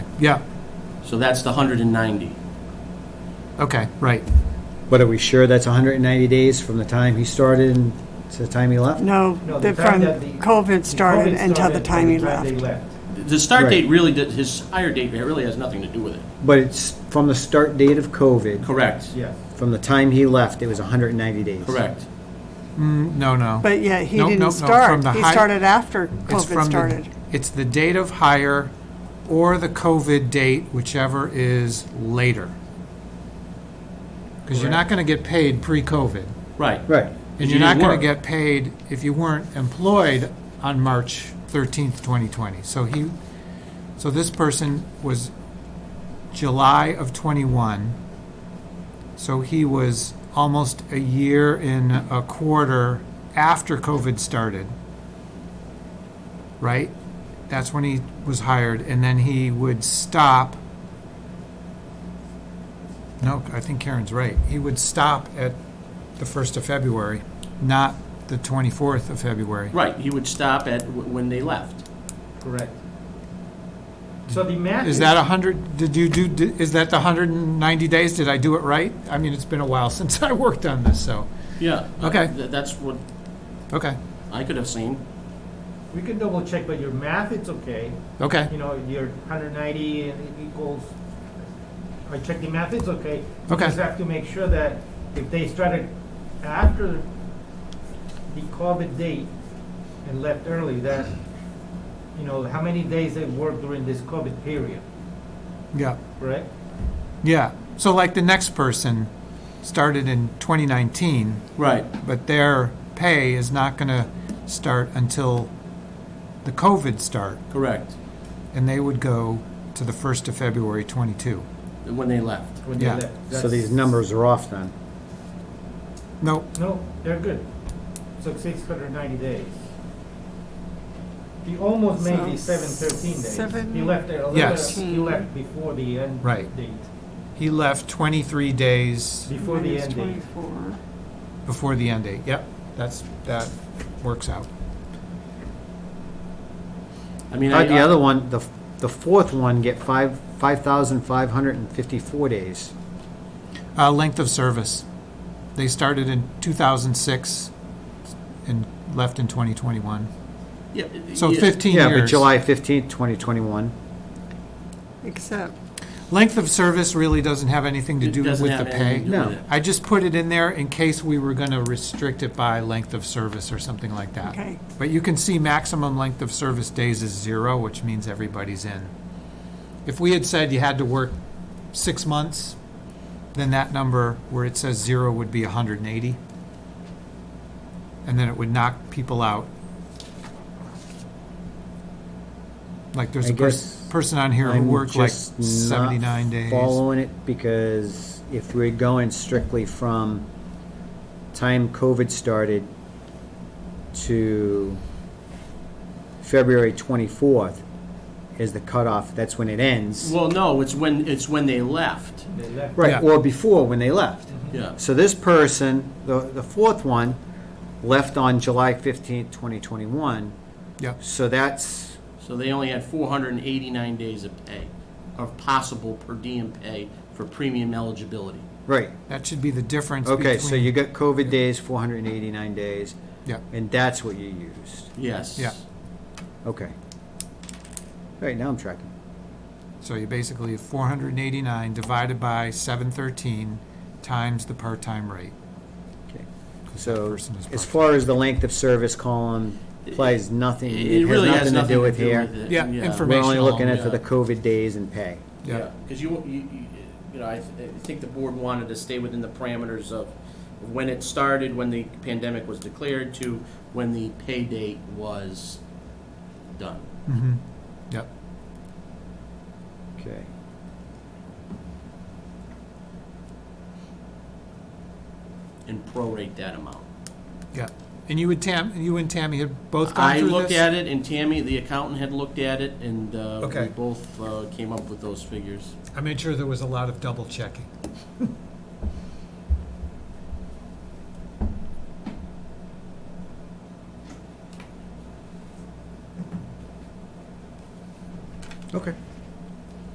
Yeah, So that's the 190. okay, right. But are we sure that's 190 days from the time he started and to the time he left? No, No, the- the fact from that the- COVID started until the time he Until the they left. The start Right. date really, did- his hire date really has nothing to do with it. But it's from the start date of COVID, Correct, Yes. from the time he left, it was 190 days. correct. Mm, No, no. But yeah, he Nope, nope, didn't nope, from start. the He hi- started after It's COVID from the- started. It's the date of hire or the COVID date, whichever is later. Because you're not going to get paid pre-COVID. Right. Right. And you you're not didn't going work. to get paid if you weren't employed on March 13th, 2020. So he, so this person was July of '21. So he was almost a year and a quarter after COVID started. Right? That's when he was hired, and then he would stop. No, I think Karen's right. He would stop at the 1st of February, not the 24th of February. Right, he would stop at, w- when they left. Correct. So the math Is that 100, did you do, di- is that the 190 days? Did I do it right? I mean, it's been a while since I worked on this, so, Yeah. Okay. Uh, Th- That's what okay, I could have seen. We can double check, but your math, it's okay. okay. You know, your 190 and it equals, I check the math, it's okay. We Okay. Just have to make sure that if they started after the COVID date and left early, that, you know, how many days they worked during this COVID period, Yeah, correct? yeah. So like the next person started in 2019, Right. but their pay is not going to start until the COVID start, Correct, and they would go to the 1st of February 22. when they left. When they Yeah. left. So That's- these numbers are off then. Nope, No, they're good. So six hundred ninety days. He almost made the So seven thirteen days. He seven- left there a little Yes. bit, he left before the end Right. date, he left 23 days before the Minus end date. 24. before the end date. Yep, that's, that works out. I mean, I. How'd the other one, the, the fourth one get five, 5,554 days? Uh, length of service. They started in 2006 and left in 2021. Yeah, So yeah, 15 Yeah, years. but July 15th, 2021. Except, Length of service really doesn't have anything to it do with doesn't have the pay. anything to do No. with it. I just put it in there in case we were going to restrict it by length of service or something like that. okay, But you can see maximum length of service days is zero, which means everybody's in. If we had said you had to work six months, then that number where it says zero would be hundred and eighty. And then it would knock people out. Like there's I a guess person, person on here who I'm worked like just not seventy-nine days. Following it because if we're going strictly from time COVID started to February twenty-fourth is the cutoff, that's when it ends. Well, no, it's when, it's when they left, They left. Right, Yeah. Mm-hmm. or before when they left. yeah. So this person, the, the fourth one, left on July fifteenth, twenty twenty-one. Yeah. So that's, So they only had 489 days of pay, of possible per diem pay for premium eligibility. right, That should be the difference between. okay, so you got COVID days, four hundred and eighty-nine days, Yeah, and that's what you used. Yes. Yeah. Okay. All right, now I'm tracking. so you basically have four hundred and eighty-nine divided by seven thirteen times the part-time rate. Okay. 'cause that So person is as part-time. far as the length of service column applies nothing, It it really has nothing to do with here. it. Yeah, We're only Informational, looking at for yeah. the COVID days and pay. Yeah, because you, you, you- you know, I, th- I think the board wanted to stay within the parameters of when it started, when the pandemic was declared, to when the pay date was done. Mm-hmm, yep. Okay. and prorate that amount. Yeah, and you and Tam, you and Tammy had both gone I through this? looked at it, and Tammy, the accountant, had looked at it, and uh, we Okay. both uh, came up with those figures. I made sure there was a lot of double checking. Okay.